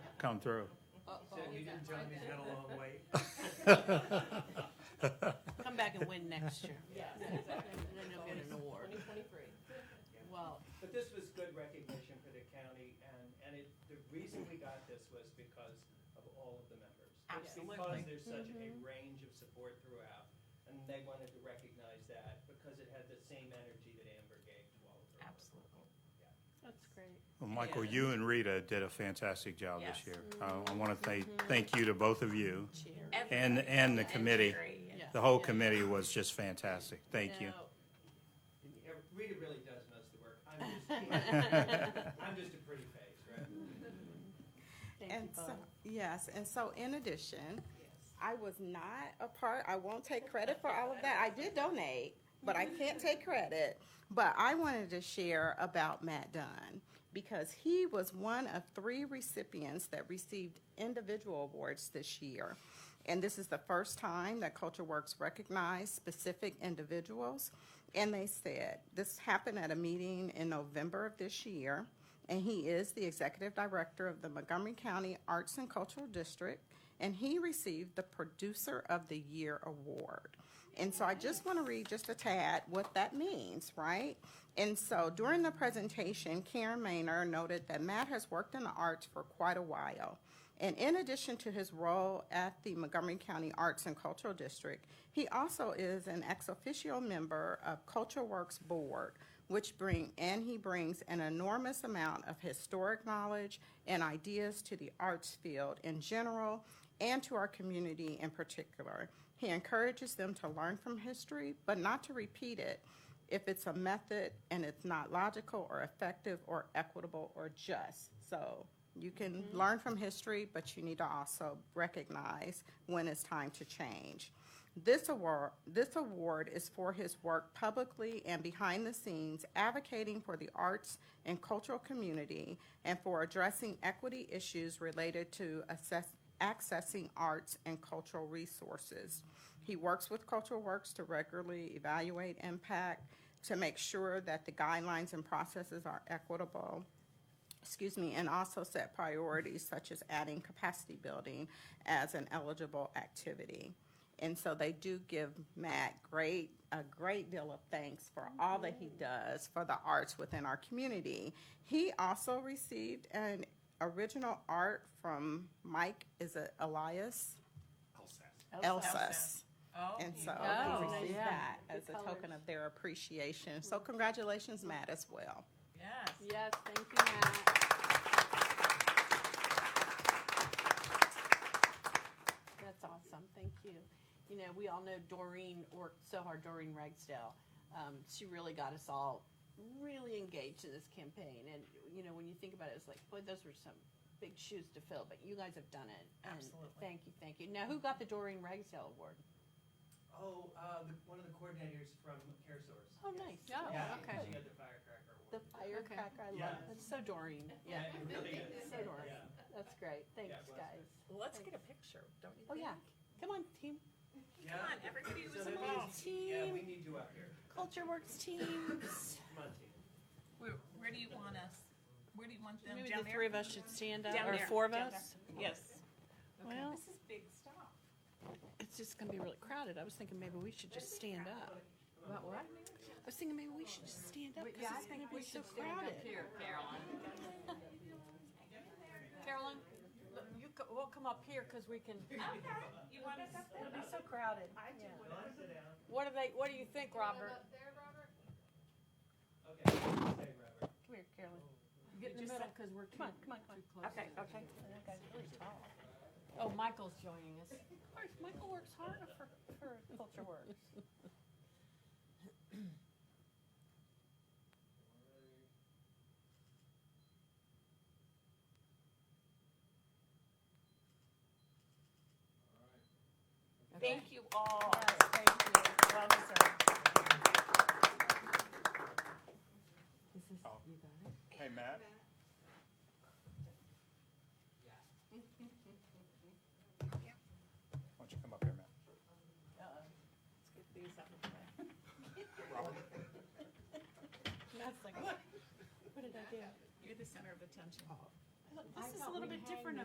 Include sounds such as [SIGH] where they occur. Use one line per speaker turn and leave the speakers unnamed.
come through.
You didn't tell me he's got a long
[LAUGHS]
way.
Come back and win next
[LAUGHS]
year.
Yes,
And then you'll get an award.
twenty twenty-three.
Well,
But this was good recognition for the county, and, and it, the reason we got this was because of all of the members. It's
Absolutely.
Because there's such a range of support throughout, and they wanted to recognize that, because it had the same energy that Amber gave to all of her. work.
absolutely.
That's great.
Well, Michael,
Yeah.
you and Rita did a fantastic job this
Yes.
year. Uh, I- I want to thank, thank you to both of you and,
Everybody.
and the committee.
Yeah.
The whole committee was just fantastic. Thank you.
Now,
And Amber- Rita really does most of the work, I'm just, I'm just a pretty face, right?
Thank you
And so,
both.
yes, and so in addition, I was not a part, I won't take credit for all of that. I did donate, but I can't take credit. But I wanted to share about Matt Dunn because he was one of three recipients that received individual awards this year. And this is the first time that Culture Works recognized specific individuals. And they said, this happened at a meeting in November of this year and he is the executive director of the Montgomery County Arts and Cultural District, and he received the Producer of the Year Award. And so I just want to read just a tad what that means, right? And so during the presentation, Karen Maynor noted that Matt has worked in the arts for quite a while. And in addition to his role at the Montgomery County Arts and Cultural District, he also is an ex officio member of Culture Works Board, which bring, and he brings an enormous amount of historic knowledge and ideas to the arts field in general and to our community in particular. He encourages them to learn from history, but not to repeat it if it's a method and it's not logical or effective or equitable or just. So you can learn from history, but you need to also recognize when it's time to change. This award, this award is for his work publicly and behind the scenes advocating for the arts and cultural community and for addressing equity issues related to assess, accessing arts and cultural resources. He works with Cultural Works to regularly evaluate impact to make sure that the guidelines and processes are equitable excuse me, and also set priorities such as adding capacity building as an eligible activity. And so they do give Matt great, a great deal of thanks for all that he does for the arts within our community. He also received an original art from Mike, is it Elias? Elsas. And so
Oh,
he received
yeah.
that
The
as a token
colors.
of their appreciation. So congratulations, Matt, as well.
Yes.
Yes, thank you, Matt.
That's awesome, thank you. You know, we all know Doreen worked so hard, Doreen Ragsdale. Um, she really got us all really engaged in this campaign. And, you know, when you think about it, it's like, boy, those were some big shoes to fill, but you guys have done it. And
Absolutely.
Thank you, thank you. Now, who got the Doreen Ragsdale Award?
Oh, uh, the, one of the coordinators from CareSource.
Oh, nice.
Yeah. Oh,
Yeah,
okay.
she had the firecracker award.
The firecracker, I love
Yeah.
it. That's so Doreen. Yeah,
Yeah, it really is.
so Doreen.
Yeah.
That's great. Thanks,
Yeah, it was.
guys.
Let's get a picture, don't you
Oh,
think?
yeah. Come on, team.
Yeah.
Come on, everybody
So
was
that means-
involved.
Yeah, we need you out here.
Culture Works teams.
Come on, team.
Where, where do you want us? Where do you want them?
Maybe
Down
the
there?
three of us should stand up,
Down
or
there,
four of
down
us.
there. Yes. Okay.
Well,
This is big stuff.
it's just gonna be really crowded. I was thinking maybe we should just stand up.
About what?
I was thinking maybe we should just stand up because it's gonna be so crowded.
Here, Caroline.
Carolyn, look, you co- we'll come up here because we can.
Okay, you want us up there?
It'll be so crowded.
I do.
Come on, sit down.
What do they? What do you think, Robert?
Okay, say, Robert.
Come here, Carolyn. Get in the middle because we're come on, come on, come on. Okay, okay.
Oh, Michael's joining us.
Michael works hard for for culture work.
Thank you all.
Yes, thank you.
Well deserved.
This is,
Oh.
you got it?
Hey, Matt. Why don't you come up here, Matt?
Let's get these out of the way. [LAUGHS] Matt's like, what? What did I do?
You're the center of attention.
I thought,
I
This is a
thought
little
we
bit
hang
different